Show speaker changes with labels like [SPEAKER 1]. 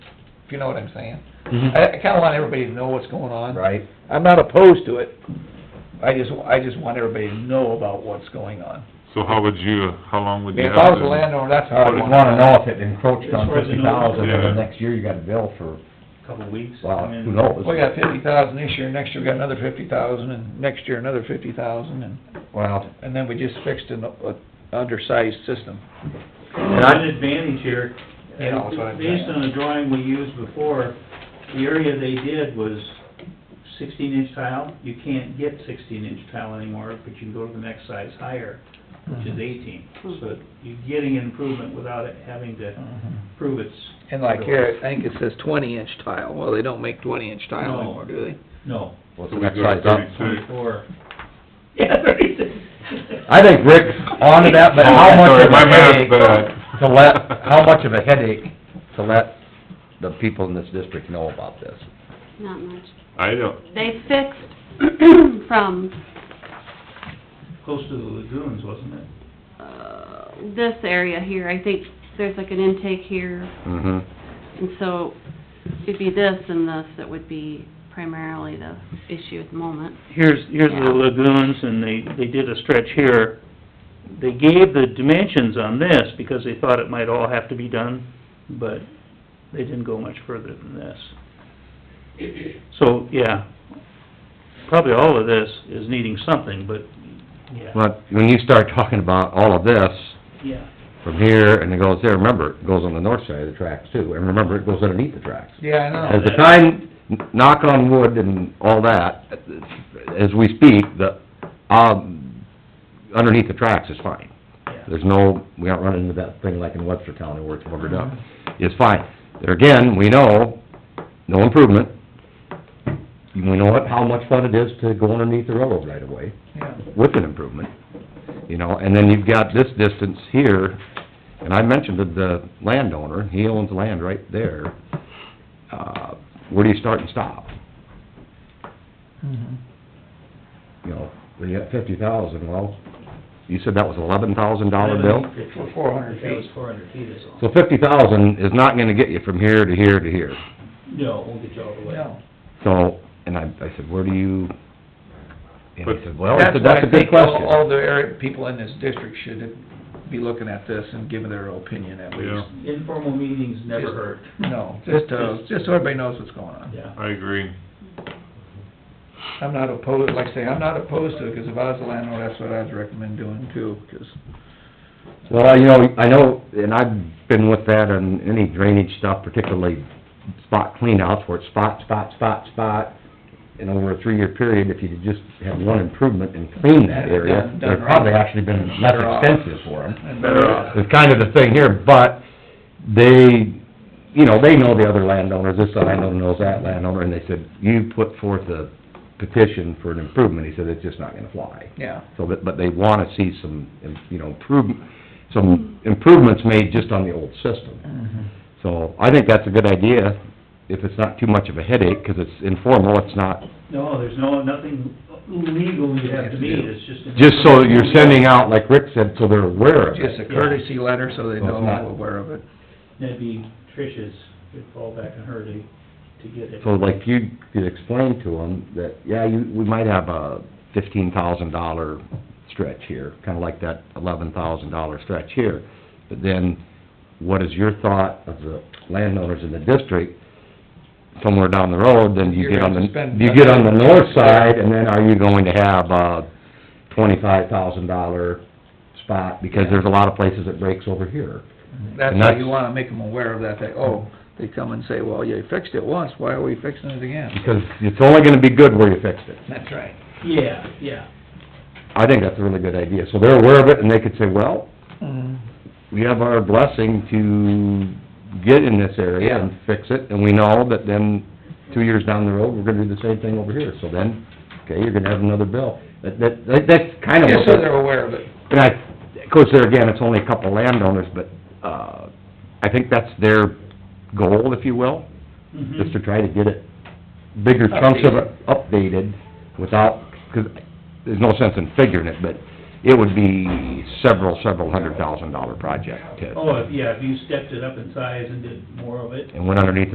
[SPEAKER 1] if you know what I'm saying.
[SPEAKER 2] Mhm.
[SPEAKER 1] I, I kinda want everybody to know what's going on.
[SPEAKER 2] Right.
[SPEAKER 1] I'm not opposed to it, I just, I just want everybody to know about what's going on.
[SPEAKER 3] So how would you, how long would you
[SPEAKER 1] If
[SPEAKER 3] have?
[SPEAKER 1] I was
[SPEAKER 3] to-
[SPEAKER 1] a landowner, that's how
[SPEAKER 2] I
[SPEAKER 1] I'd
[SPEAKER 2] just
[SPEAKER 1] want.
[SPEAKER 2] wanna know if it encroached on
[SPEAKER 4] As far as I
[SPEAKER 2] fifty
[SPEAKER 4] know,
[SPEAKER 2] thousand, and
[SPEAKER 3] yeah.
[SPEAKER 2] then next year you got a bill for,
[SPEAKER 4] couple of weeks.
[SPEAKER 2] well,
[SPEAKER 4] I mean,
[SPEAKER 2] who knows?
[SPEAKER 1] We got Oh, fifty thousand this year, next year we got another fifty thousand, and next year another fifty thousand, and,
[SPEAKER 2] Well,
[SPEAKER 1] and then we just fixed an, uh, undersized system.
[SPEAKER 4] There's an advantage here.
[SPEAKER 1] Yeah, that's what I'm
[SPEAKER 4] Based
[SPEAKER 1] saying.
[SPEAKER 4] on the drawing we used before, the area they did was sixteen inch tile. You can't get sixteen inch tile anymore, but you can go to the next size higher, which
[SPEAKER 1] Mm-hmm.
[SPEAKER 4] is eighteen. So you're getting an improvement without it having to
[SPEAKER 2] Mm-hmm.
[SPEAKER 4] prove it's.
[SPEAKER 1] Hmm. And like here, I think it says twenty inch tile, well, they don't make twenty inch tile
[SPEAKER 4] No.
[SPEAKER 1] anymore, do they?
[SPEAKER 4] No,
[SPEAKER 2] what's
[SPEAKER 3] So we
[SPEAKER 2] the next
[SPEAKER 3] go to
[SPEAKER 2] size up?
[SPEAKER 3] thirty-six.
[SPEAKER 4] twenty-four. Yeah, thirty-six.
[SPEAKER 2] I think Rick's onto that, but
[SPEAKER 3] Oh,
[SPEAKER 2] how much
[SPEAKER 3] sorry,
[SPEAKER 2] of
[SPEAKER 3] my
[SPEAKER 2] a
[SPEAKER 3] math's
[SPEAKER 2] headache
[SPEAKER 3] bad.
[SPEAKER 2] to let, how much of a headache to let the people in this district know about this?
[SPEAKER 5] Not much.
[SPEAKER 3] I don't,
[SPEAKER 5] They fixed from,
[SPEAKER 4] Close to the lagoons, wasn't it?
[SPEAKER 5] uh, this area here, I think there's like an intake here,
[SPEAKER 1] Mm-hmm.
[SPEAKER 3] mhm.
[SPEAKER 5] and so it'd be this and this that would be primarily the issue at the moment.
[SPEAKER 6] here's, here's
[SPEAKER 5] Yeah.
[SPEAKER 6] the lagoons, and they, they did a stretch here. They gave the dimensions on this because they thought it might all have to be done, but they didn't go much further than this. So, yeah, probably all of this is needing something, but, yeah,
[SPEAKER 2] But when you start talking about all of this,
[SPEAKER 6] yeah.
[SPEAKER 2] from here, and it goes there, remember, it goes on the north side of the tracks too, and remember, it goes underneath the tracks.
[SPEAKER 1] Yeah, I know.
[SPEAKER 2] As the time, knock on wood and all that, as we speak, the, um, underneath the tracks is fine.
[SPEAKER 6] Yeah.
[SPEAKER 2] There's no, we aren't running into that thing like in Webster County where it's covered up. It's fine. There again, we know, no improvement. We know what, how much fun it is to go underneath the railroad right away
[SPEAKER 1] Yeah.
[SPEAKER 2] with an improvement, you know, and then you've got this distance here, and I mentioned to the landowner, he owns land right there, uh, where do you start and stop?
[SPEAKER 1] Mhm.
[SPEAKER 2] You know, we got fifty thousand, well, you said that was eleven thousand dollar bill?
[SPEAKER 1] For 400 feet.
[SPEAKER 4] That was four hundred feet is all.
[SPEAKER 2] So fifty thousand is not gonna get you from here to here to here,
[SPEAKER 4] No, it won't get you all the way.
[SPEAKER 1] No.
[SPEAKER 2] so, and I, I said, where do you? And he said, well, I
[SPEAKER 1] That's
[SPEAKER 2] said,
[SPEAKER 1] why
[SPEAKER 2] that's
[SPEAKER 1] I
[SPEAKER 2] a good
[SPEAKER 1] think all,
[SPEAKER 2] question.
[SPEAKER 1] all the area, people in this district should be looking at this and giving their opinion at least.
[SPEAKER 3] Yeah,
[SPEAKER 4] Informal meetings never
[SPEAKER 1] Just-
[SPEAKER 4] hurt.
[SPEAKER 1] No, just, uh, just so everybody knows what's going on.
[SPEAKER 4] Yeah.
[SPEAKER 3] I agree.
[SPEAKER 1] I'm not opposed, like I say, I'm not opposed to it, 'cause if I was a landlord, that's what I'd recommend doing too, 'cause
[SPEAKER 2] Well, you know, I know, and I've been with that on any drainage stuff, particularly spot cleanouts where it's spot, spot, spot, spot. And over a three-year period, if you could just have one improvement and clean that area,
[SPEAKER 1] Done- done
[SPEAKER 2] it'd probably
[SPEAKER 1] right.
[SPEAKER 2] actually been less
[SPEAKER 1] Better off.
[SPEAKER 2] expensive for them.
[SPEAKER 1] And better off.
[SPEAKER 2] It's kind of the thing here, but they, you know, they know the other landowners, this landowner knows that landowner, and they said, you put forth a petition for an improvement, he said, it's just not gonna fly.
[SPEAKER 1] Yeah.
[SPEAKER 2] So, but, but they wanna see some, you know, improve, some improvements made just on the old system. So, I think that's a good idea, if it's not too much of a headache, 'cause it's informal, it's not,
[SPEAKER 4] No, there's no, nothing legal you have to meet, it's just.
[SPEAKER 2] just so that you're sending out, like Rick said, so they're aware of
[SPEAKER 1] Just a
[SPEAKER 2] it.
[SPEAKER 1] courtesy letter, so they
[SPEAKER 2] Well,
[SPEAKER 1] know
[SPEAKER 2] it's not-
[SPEAKER 1] I'm aware of it.
[SPEAKER 4] That'd be Trish's, could fall back on her to, to get it.
[SPEAKER 2] So like you could explain to them that, yeah, you, we might have a fifteen thousand dollar stretch here, kinda like that eleven thousand dollar stretch here. But then, what is your thought of the landowners in the district somewhere down the road, then you
[SPEAKER 1] You're
[SPEAKER 2] get on
[SPEAKER 1] gonna spend-
[SPEAKER 2] the, you get on the north side, and then are you going to have a twenty-five thousand dollar spot? Because there's a lot of places it breaks over here.
[SPEAKER 1] That's
[SPEAKER 2] Mm-hmm. And
[SPEAKER 1] how
[SPEAKER 2] that's-
[SPEAKER 1] you wanna make them aware of that, that, oh, they come and say, well, you fixed it once, why are we fixing it again?
[SPEAKER 2] Because it's only gonna be good where you fixed it.
[SPEAKER 1] That's right.
[SPEAKER 4] Yeah, yeah.
[SPEAKER 2] I think that's a really good idea. So they're aware of it, and they could say, well,
[SPEAKER 1] Mhm.
[SPEAKER 2] we have our blessing to get in this area and fix it, and we know that then, two years down the road, we're gonna do the same thing over here. So then, okay, you're gonna have another bill. That, that, that- that's kind of
[SPEAKER 1] Just
[SPEAKER 2] what
[SPEAKER 1] so they're
[SPEAKER 2] they're...
[SPEAKER 1] aware of it.
[SPEAKER 2] And I, of course, there again, it's only a couple landowners, but, uh, I think that's their goal, if you will,
[SPEAKER 4] Mhm.
[SPEAKER 2] just to try to get it, bigger chunks of it updated without, because there's no sense in figuring it, but it would be several, several hundred thousand dollar project to,
[SPEAKER 4] Oh, if- yeah, if you stepped it up in size and did more of it,
[SPEAKER 2] and went underneath